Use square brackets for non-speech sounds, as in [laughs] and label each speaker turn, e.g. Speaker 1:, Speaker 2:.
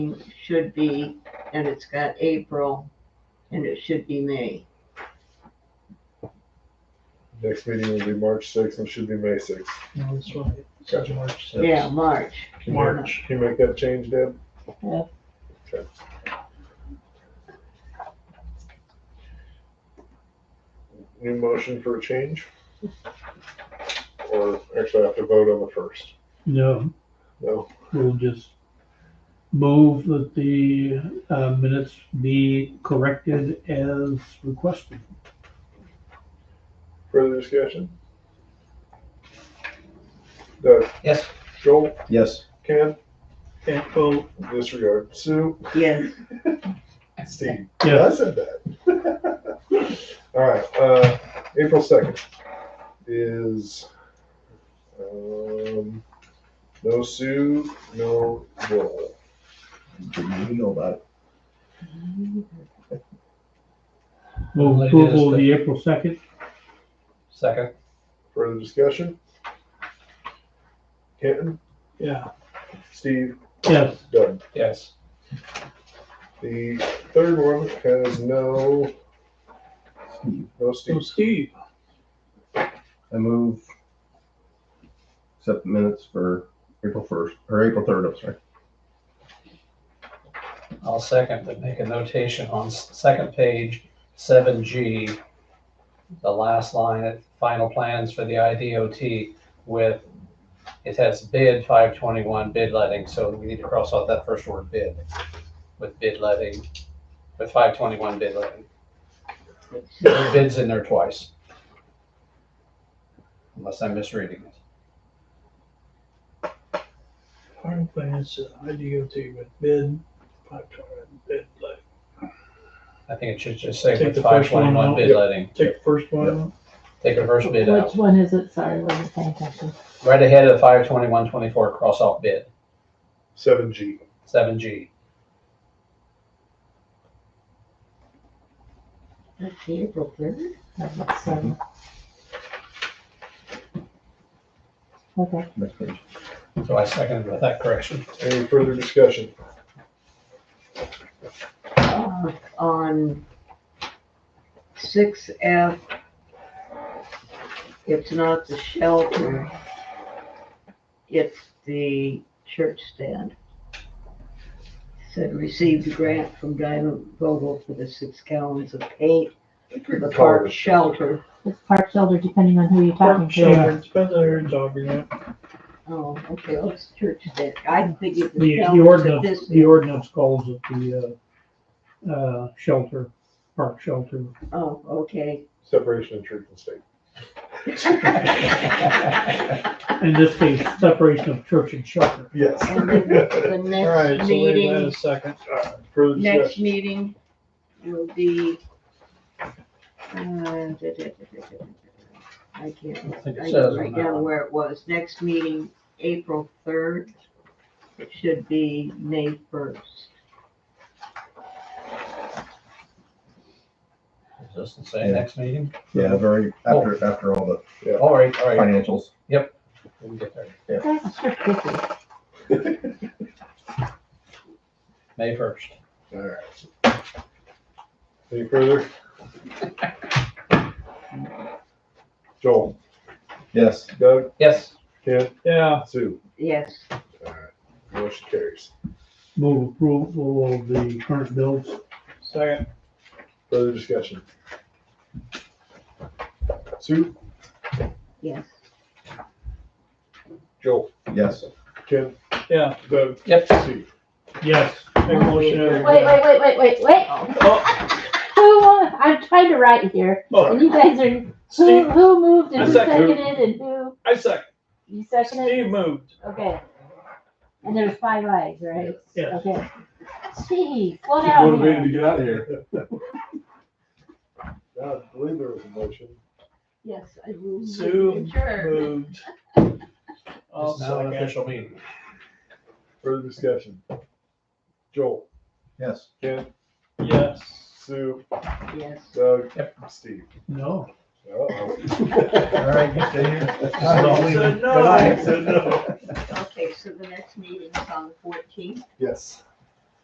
Speaker 1: should be, and it's got April, and it should be May.
Speaker 2: Next meeting will be March sixth and should be May sixth.
Speaker 3: No, that's right. Such a March. sixth.
Speaker 1: Yeah, March.
Speaker 2: Can you-
Speaker 3: March.
Speaker 2: Can you make that change, Deb?
Speaker 4: Yeah.
Speaker 2: Okay. New motion for a change? Or actually I have to vote on the first.
Speaker 5: No,
Speaker 2: No,
Speaker 5: we'll just move that the uh, minutes be corrected as requested.
Speaker 2: further discussion? Doug,
Speaker 4: Yes.
Speaker 2: Joel,
Speaker 6: Yes.
Speaker 2: Ken,
Speaker 3: Okay, well,
Speaker 2: disregard, Sue,
Speaker 1: Yes,
Speaker 2: Steve. I
Speaker 5: Yes,
Speaker 2: said that. [laughs] All right, uh, April second is, um, no Sue, no Joel.
Speaker 6: Didn't even know about it.
Speaker 5: move approval of the April second.
Speaker 4: Second.
Speaker 2: Further discussion? Kenton,
Speaker 3: yeah,
Speaker 2: Steve,
Speaker 5: Yes,
Speaker 2: Doug.
Speaker 4: Yes.
Speaker 2: The third one has no, no
Speaker 3: so
Speaker 2: Steve.
Speaker 3: Steve,
Speaker 6: I move, accept the minutes for April first, or April third, I'm sorry.
Speaker 4: I'll second, but make a notation on s- second page, seven G, the last line, final plans for the IDOT with, it has bid five twenty-one, bid letting, so we need to cross out that first word bid with bid letting, with five twenty-one bid letting. There are Bids in there twice. Unless I'm misreading it.
Speaker 3: final plans, uh, IDOT with bid, five dollar bid, like,
Speaker 4: I think it should just say
Speaker 3: Take
Speaker 4: with
Speaker 3: the
Speaker 4: five
Speaker 3: first one
Speaker 4: twenty-one
Speaker 3: out.
Speaker 4: bid
Speaker 2: Yep.
Speaker 4: letting.
Speaker 3: take the first one,
Speaker 4: Take the first bid out.
Speaker 7: Which one is it? Sorry, wasn't paying attention.
Speaker 4: Right ahead of five twenty-one twenty-four cross off bid,
Speaker 2: Seven G.
Speaker 4: seven G.
Speaker 1: that's April third.
Speaker 7: That
Speaker 3: Mm-hmm.
Speaker 7: looks, um, Okay,
Speaker 6: Next page.
Speaker 4: So I seconded with that correction.
Speaker 2: Any further discussion?
Speaker 1: Uh, On six F, it's not the shelter. It's the church stand. Said received a grant from Diamond Vogel for the six gallons of paint for the park shelter.
Speaker 7: it's park shelter depending on who you're talking
Speaker 3: park
Speaker 7: to.
Speaker 3: shelter, depends on your dog, you know.
Speaker 1: Oh, okay, well, it's church stand. I figured the
Speaker 5: the, the
Speaker 1: shelter's at this.
Speaker 5: ordinance, the ordinance calls it the, uh, uh, shelter, park shelter.
Speaker 1: Oh, okay.
Speaker 2: Separation of church and state.
Speaker 5: In this case, separation of church and shelter.
Speaker 1: [laughs]
Speaker 2: Yes.
Speaker 1: And
Speaker 3: [laughs]
Speaker 1: then the
Speaker 3: All right, so
Speaker 1: next
Speaker 3: wait
Speaker 1: meeting.
Speaker 3: a second,
Speaker 2: Further
Speaker 1: Next
Speaker 2: discussion?
Speaker 1: meeting will be. uh, da, da, da, da, da, da. I can't,
Speaker 4: I think it
Speaker 1: I
Speaker 4: says
Speaker 1: can
Speaker 4: on
Speaker 1: write
Speaker 4: that
Speaker 1: down
Speaker 4: one.
Speaker 1: where it was. Next meeting, April third. It should be May first.
Speaker 4: Just to say next meeting.
Speaker 6: Yeah, very, after, after all the
Speaker 4: All right, all right.
Speaker 6: financials.
Speaker 4: We can get there.
Speaker 7: You guys are so picky.
Speaker 4: May first.
Speaker 2: All right. Any further? Joel,
Speaker 6: Yes.
Speaker 2: Doug,
Speaker 4: Yes,
Speaker 2: Ken,
Speaker 3: yeah,
Speaker 2: Sue.
Speaker 1: Yes,
Speaker 2: All right. Motion carries.
Speaker 5: Move approval of the current bills.
Speaker 3: second,
Speaker 2: Further discussion? Sue,
Speaker 1: yes.
Speaker 2: Joel,
Speaker 6: Yes.
Speaker 2: Ken,
Speaker 3: yeah,
Speaker 2: Doug,
Speaker 4: yep.
Speaker 2: Steve.
Speaker 5: Yes.
Speaker 3: make a motion. to-
Speaker 7: Wait, wait, wait, wait, wait, wait.
Speaker 3: Oh,
Speaker 7: Who, won? I'm trying to write here and
Speaker 3: oh,
Speaker 7: you guys are, who,
Speaker 3: Steve,
Speaker 7: who moved and
Speaker 3: I
Speaker 7: who
Speaker 3: second.
Speaker 7: seconded and who,
Speaker 3: I second,
Speaker 7: you seconded?
Speaker 3: Steve moved,
Speaker 7: Okay. And there's five eyes, right?
Speaker 5: Yes.
Speaker 7: Okay. Steve, slow down here.
Speaker 6: get out of here.
Speaker 2: [laughs] Now, I believe there was a motion.
Speaker 1: Yes, I will.
Speaker 3: Sue
Speaker 1: Sure.
Speaker 3: moved. I'll
Speaker 4: It's now an
Speaker 3: second,
Speaker 4: official meeting.
Speaker 2: Further discussion? Joel,
Speaker 6: Yes.
Speaker 2: Ken,
Speaker 3: yes,
Speaker 2: Sue,
Speaker 1: Yes.
Speaker 2: Doug,
Speaker 4: Yep.
Speaker 2: Steve. [laughs]
Speaker 5: No.
Speaker 6: All
Speaker 2: Uh-oh.
Speaker 6: right, you stay here.
Speaker 3: I don't believe it.
Speaker 6: But I said no.
Speaker 1: Okay, so the next meeting's on the fourteenth.
Speaker 2: Yes.